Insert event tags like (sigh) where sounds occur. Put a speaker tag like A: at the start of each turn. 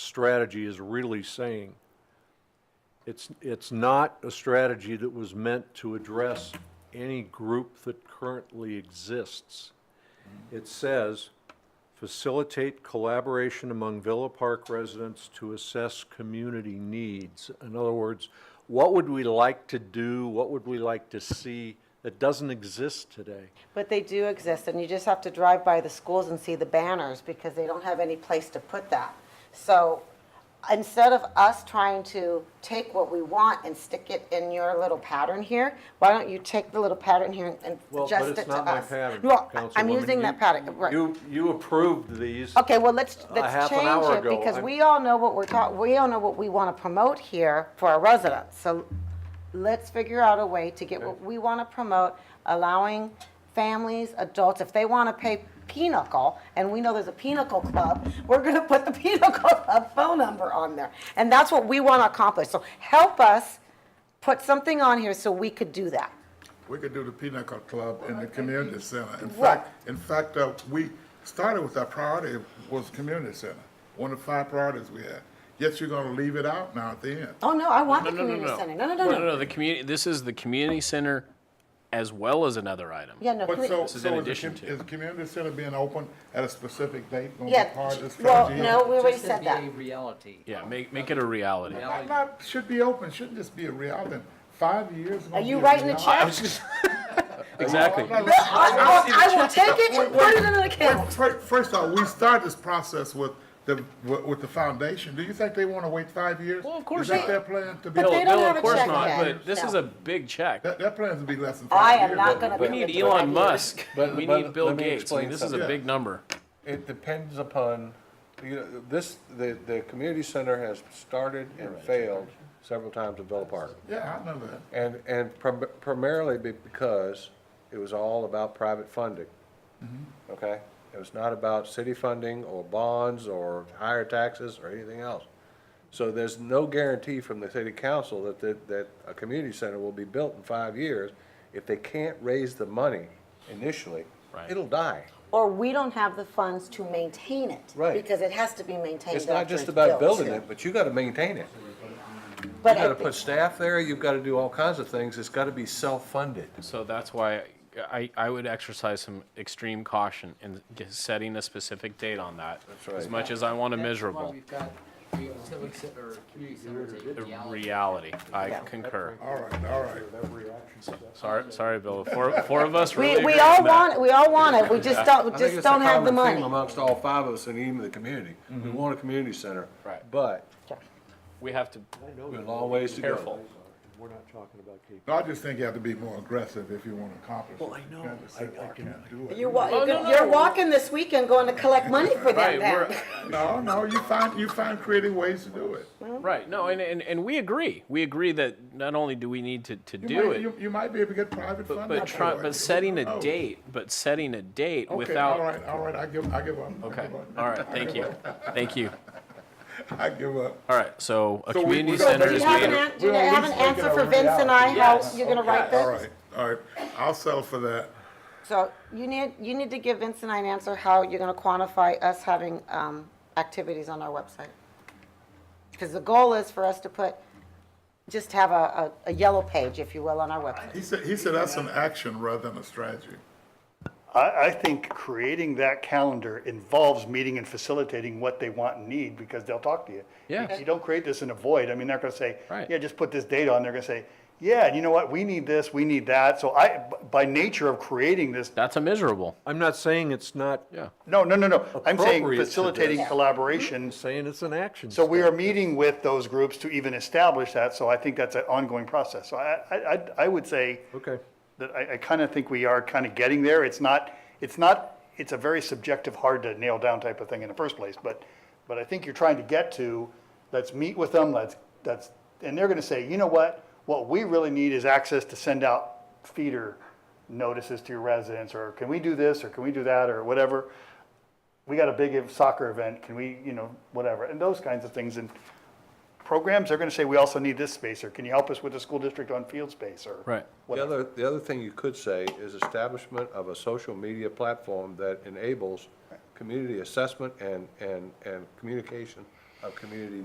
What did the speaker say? A: strategy is really saying. It's, it's not a strategy that was meant to address any group that currently exists. It says, facilitate collaboration among Villa Park residents to assess community needs. In other words, what would we like to do, what would we like to see that doesn't exist today?
B: But they do exist, and you just have to drive by the schools and see the banners because they don't have any place to put that. So instead of us trying to take what we want and stick it in your little pattern here, why don't you take the little pattern here and
A: Well, but
B: adjust it
A: it's
B: to
A: not my
B: us?
A: pattern,
B: Well, I- I'm
A: Councilwoman.
B: using that
A: You-
B: pattern, right. Oh,
A: You, you approved these.
B: Okay, well, let's,
A: a
B: let's
A: half an
B: change
A: hour
B: it
A: ago,
B: because
A: I'm-
B: we all know what we're talking, we all know what we want to promote here for our residents. So let's figure out a way to get what we want to promote, allowing families, adults, if they want to pay Pinochle, and we know there's a Pinochle Club, we're going to put the (laughs) Pinochle Club phone number on there. And that's what we want to accomplish. So help us put something on here so we could do that.
C: We could do the Peanut Cup Club in the community center. In
B: Right.
C: fact, in fact, uh, we started with our priority was community center, one of the five priorities we had. Yet you're gonna leave it out now at the end.
B: Oh, no, I want
D: No,
B: the
D: no, no,
B: community
D: no.
B: center. No, no, no,
D: No, no,
B: no.
D: the community, this is the community center as well as another item.
B: Yeah, no.
C: But
B: commu-
C: so,
D: This is
C: so
D: in
C: is the,
D: addition
C: com-
D: to.
C: is the community center being open at a specific date gonna
B: Yeah,
C: be part of the
B: well,
C: strategy?
B: no, we already
E: Just
B: said that.
E: To be a reality.
D: Yeah, make, make it a reality.
C: Not, not- should be open, shouldn't just be a reality. Five years.
B: Are you writing a check?
D: Exactly.
B: I, I will take it and put it in an account.
C: First, first off, we started this process with the, with with the foundation. Do you think they wanna wait five years?
D: Well, of course
C: Is that
D: not.
C: their plan to be?
B: But they
D: No,
B: don't
D: no,
B: have a
D: Of course
B: check
D: not,
B: yet.
D: but this is
B: No.
D: a big check.
C: That, that plan to be less than five
B: I
C: years.
B: am not gonna.
D: We
B: be
D: need
B: able to
D: Elon
B: do that.
D: Musk.
F: But-
D: We
F: but
D: need Bill
F: let me
D: Gates. I mean,
F: explain
D: this is a
C: something.
D: big number.
F: It depends upon, you know, this, the, the community center has started and failed several times in Villa Park.
C: Yeah, I know that.
F: And, and prim- primarily be- because it was all about private funding. Okay? It was not about city funding or bonds or higher taxes or anything else. So there's no guarantee from the city council that, that, that a community center will be built in five years. If they can't raise the money initially,
D: Right.
F: it'll die.
B: Or we don't have the funds to maintain it.
F: Right.
B: Because it has to be maintained.
F: It's not
B: after
F: just about
B: built,
F: building
B: too.
F: it, but you gotta maintain it. You
B: But
F: gotta
B: it-
F: put staff there, you've gotta do all kinds of things, it's gotta be self-funded.
D: So that's why I, I would exercise some extreme caution in g- setting a specific date on that.
F: right.
D: As much as I want a
E: That's why
D: miserable,
E: we've got, we have civic cen- or community centers, a
D: the
E: reality.
D: reality, I concur.
C: All right, all right.
D: Sorry, sorry, Bill. Four, four of us really
B: We,
D: agree
B: we
D: on
B: all
D: that.
B: want, it. we all want it. We just don't,
F: I think
B: just
F: it's a
B: don't have the
F: common theme
B: money.
F: Amongst all five of us and even the community, we want a community center.
D: Mm-hmm. Right.
F: But
D: We have to,
F: we have a long ways to go.
D: Careful.
A: We're not talking about KP.
C: No, I just think you have to be more aggressive if you want to accomplish. Well, I know. I can't do
B: You're,
C: it.
B: wa- you're gonna- you're walking this weekend going to collect money for them
D: right,
B: then.
D: we're,
C: No, no, you find, you find creative ways to do it.
D: Right. No, and, and, and we agree. We agree that not only do we need to, to
C: You
D: do
C: might-
D: it,
C: You, you might be able to get private funding.
D: but try,
C: for it.
D: but setting a
C: Oh,
D: date, but setting a date
C: Okay,
D: without.
C: all right, all right, I give, I give up. I
D: Okay.
C: give up.
D: All right. Thank
C: (laughs)
D: you. Thank you.
C: I give up.
D: All right. So a
C: So we-
D: community
C: we-
D: center
B: Do you
D: is.
B: have an,
D: made-
B: an- do you
C: We'll at
B: have an
C: least make it
B: answer
C: a
B: for Vince and I,
C: reality.
B: how
D: Yes.
B: you're gonna write
C: All
B: this?
C: right, all right, I'll settle for that.
B: So you need, you need to give Vince and I an answer how you're gonna quantify us having, um, activities on our website. Because the goal is for us to put, just have a, a, a yellow page, if you will, on our website.
C: He said, he said that's an action rather than a strategy.
G: I, I think creating that calendar involves meeting and facilitating what they want and need, because they'll talk to you.
D: Yeah.
G: If You don't create this in a void, I mean, they're gonna say,
D: Right.
G: yeah, just put this date on, they're gonna say, yeah, and you know what, we need this, we need that, so I, by nature of creating this,
D: That's a miserable.
A: I'm not saying it's not,
D: Yeah.
G: no, no, no, no, I'm saying
A: Appropriate to
G: facilitating
A: this. Mm-hmm.
G: collaboration.
A: saying it's an action.
G: So we
A: step.
G: are meeting with those groups to even establish that, so I think that's an ongoing process, so I, I, I- I would say.
A: Okay,
G: that I, I kind of think we are kind of getting there. It's not, it's not, it's a very subjective, hard to nail down type of thing in the first place, but, but I think you're trying to get to, let's meet with them, let's, that's, and they're gonna say, you know what? What we really need is access to send out feeder notices to your residents, or can we do this, or can we do that, or whatever. We got a big soccer event, can we, you know, whatever, and those kinds of things, and programs, they're gonna say, we also need this space, or can you help us with the school district on field space, or.
D: Right.
F: The other, the other thing you could say is establishment of a social media platform that enables community assessment and, and, and communication of community